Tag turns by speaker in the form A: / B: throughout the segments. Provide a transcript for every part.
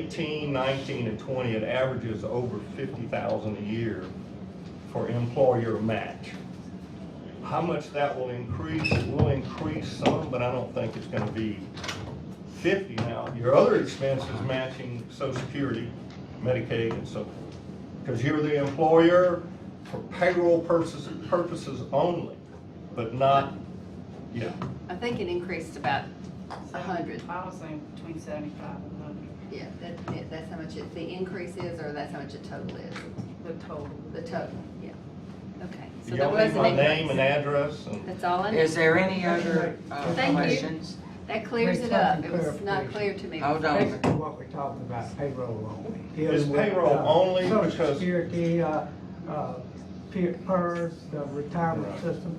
A: 18, 19, and 20, it averages over 50,000 a year for employer match. How much that will increase, it will increase some, but I don't think it's gonna be 50 now. Your other expenses matching social security, Medicaid, and so forth. Because you're the employer for payroll purposes, purposes only, but not, yeah.
B: I think it increased about a hundred.
C: I was saying between seventy-five and hundred,
B: Yeah, that, that- that's how much it, the increase is, or that's how much the total is?
C: the total.
B: The total, yeah. Okay. So there
A: Y'all
B: was
A: need my
B: an
A: name and
B: increase.
A: address and
B: That's all I need.
D: Is there any other uh,
B: Thank you.
D: questions?
B: That clears it up. It was not clear to me.
D: Hold on.
E: Basically, what we're talking about payroll only.
A: It's
E: Dealing with,
A: payroll
E: uh,
A: only
E: Social
A: because-
E: Security, uh, uh, P- PERS, the retirement
A: Right.
E: system.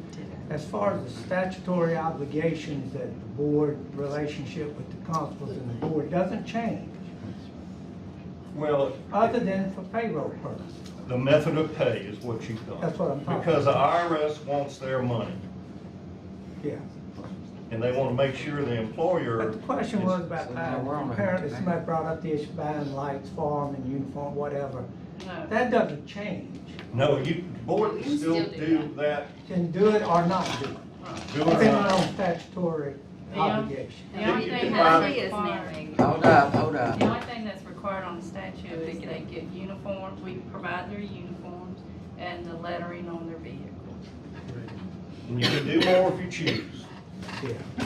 E: As far as the statutory obligations that the board, relationship with the constables and the board doesn't change,
A: Well,
E: other than for payroll purposes.
A: the method of pay is what you've done.
E: That's what I'm talking
A: Because the IRS wants their money,
E: Yeah.
A: and they wanna make sure the employer.
E: But the question
A: is-
E: was about,
D: So now we're on
E: buying-
D: a-
E: apparently somebody brought up the issue of buying lights, farm and uniform, whatever.
C: No.
E: That doesn't change.
A: No, you, board can still do that,
E: Can do it or not do it.
A: do it or
E: Depending
A: not.
E: on statutory
C: Yeah.
E: obligation.
C: The only
A: You
C: thing
A: can
C: that's
A: buy-
B: She is now.
C: required,
D: Hold up, hold
C: the
D: up.
C: only thing that's required on the statute is they get uniforms, we provide their uniforms and the lettering on their vehicle.
A: And you can do more if you choose.
E: Yeah.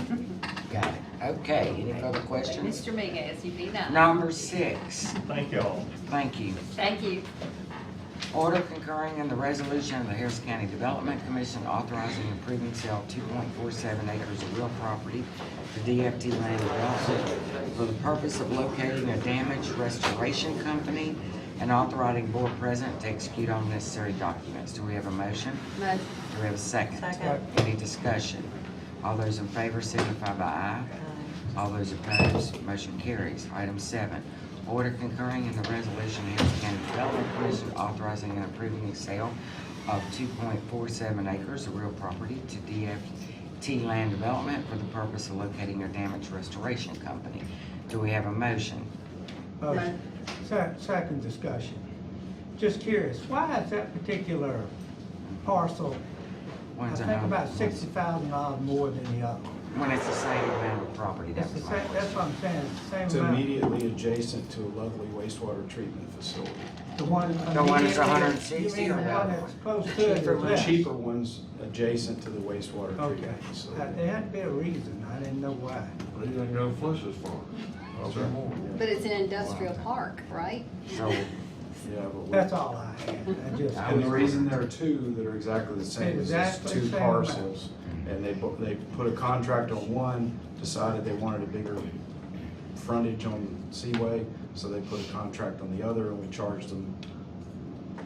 D: Got it. Okay, any further questions?
B: Mr. Miguez, you be nice.
D: Number six,
A: Thank y'all.
D: thank you.
B: Thank you.
D: Order concurring in the resolution of the Harris County Development Commission authorizing and approving sale two point four seven acres of real property to DFT Land Development for the purpose of locating a damaged restoration company and authorizing board president to execute all necessary documents. Do we have a motion?
B: Mo-
D: Do we have a second?
E: Second.
D: Any discussion? All those in favor signify by aye. All those opposed, motion carries. Item seven, order concurring in the resolution of Harris County Development Commission authorizing and approving the sale of two point four seven acres of real property to DFT Land Development for the purpose of locating a damaged restoration company. Do we have a motion?
E: Uh,
B: Right.
E: se- Second discussion. Just curious, why is that particular parcel, I
D: One's a
E: think
D: home-
E: about sixty thousand dollars more than the other?
D: When it's the same amount of property, that's
E: It's the
D: my
E: same, that's what I'm saying, it's the
F: It's
E: same amount.
F: immediately adjacent to a lovely wastewater treatment facility.
E: The one
D: The one that's
E: immediately-
D: 160
E: You mean
D: or
E: the
D: the
E: one
D: other
E: that's
D: one?
E: close to it
D: Cheaper
E: or
D: one.
E: less?
F: Cheaper ones adjacent to the wastewater
E: Okay,
F: treatment
E: Uh,
F: facility.
E: there had to be a reason, I didn't know why.
G: They ain't got flush as far.
F: That's right.
B: But it's an industrial park, right?
D: So,
F: Yeah, but we-
E: That's all I had, I just.
F: And the reason there are two that are exactly the same is it's
E: Exactly
F: two
E: same
F: parcels. And they, bu- they put a contract on one, decided they wanted a bigger frontage on Seaway, so they put a contract on the other and we charged them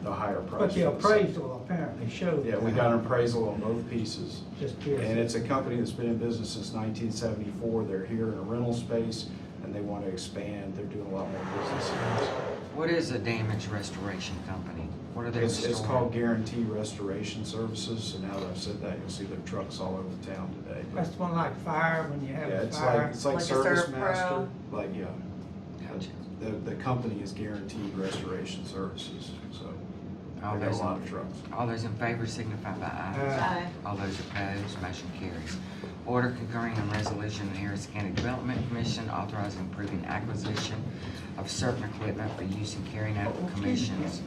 F: the higher price.
E: But the
F: for same.
E: appraisal apparently showed.
F: Yeah, we
E: that.
F: got an appraisal on both pieces.
E: Just curious.
F: And it's a company that's been in business since nineteen seventy-four. They're here in a rental space and they want to expand. They're doing a lot more business.
D: what is a damaged restoration company? What are they
F: It's,
D: restoring?
F: it's called Guarantee Restoration Services. And now that I've said that, you'll see their trucks all over town today.
E: That's the one like fire, when you have
F: Yeah,
E: a
F: it's like,
E: fire.
F: it's like
B: Like a
F: Service
B: Servpro.
F: Master. Like, yeah.
D: Gotcha.
F: The, the company is Guaranteed Restoration Services,
E: Oh,
F: so they
D: All
F: got a
D: those
F: lot
D: in-
F: of trucks.
D: All those in favor signify by
E: Uh,
D: aye. All those opposed, motion carries. Order concurring in resolution of the Harris County Development Commission authorizing and approving acquisition of certain equipment for use in carrying out
F: Oh,
D: the commission's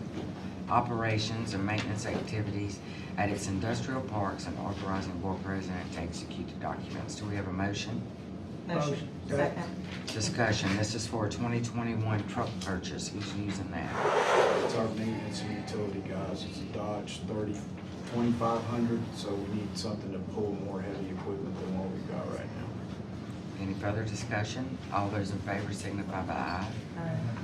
D: operations and maintenance activities at its industrial parks and authorizing board president to execute the documents. Do we have a motion?
E: Motion. Second.
D: Discussion, this is for a twenty twenty-one truck purchase. Who's using that?
F: It's our maintenance and utility guys, it's a Dodge thirty, twenty-five hundred, so we need something to pull more heavy equipment than what we've got right now.
D: Any further discussion? All those in favor signify by aye.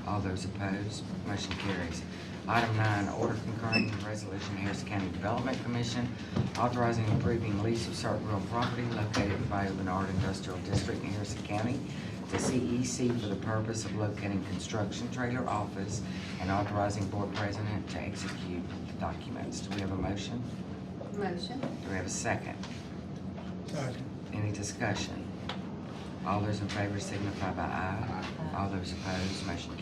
D: All those opposed, motion carries. Item nine, order concurring in resolution Harris County Development Commission authorizing and approving lease of certain real property located in Bayou Bernard Industrial District in Harrison County to CEC for the purpose of locating construction trailer office and authorizing board president to execute the documents. Do we have a motion?
B: Motion.
D: Do we have a second?
E: Second.
D: Any discussion? All those in favor signify by aye. All those opposed, motion carries.